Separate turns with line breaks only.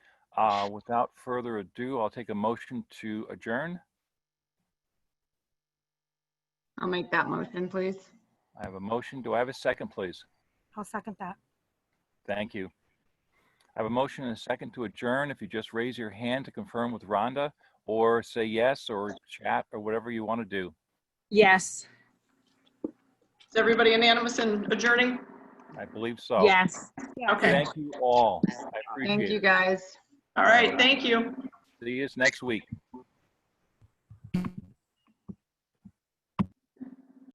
Uh, Without further ado, I'll take a motion to adjourn.
I'll make that motion, please.
I have a motion. Do I have a second, please?
I'll second that.
Thank you. I have a motion and a second to adjourn. If you just raise your hand to confirm with Rhonda or say yes or chat or whatever you want to do.
Yes,
Is everybody unanimous in adjourning?
I believe so.
yes.
Okay,
Thank you all. I
Thank you,
appreciate it.
guys.
all right, thank you.
See you next week.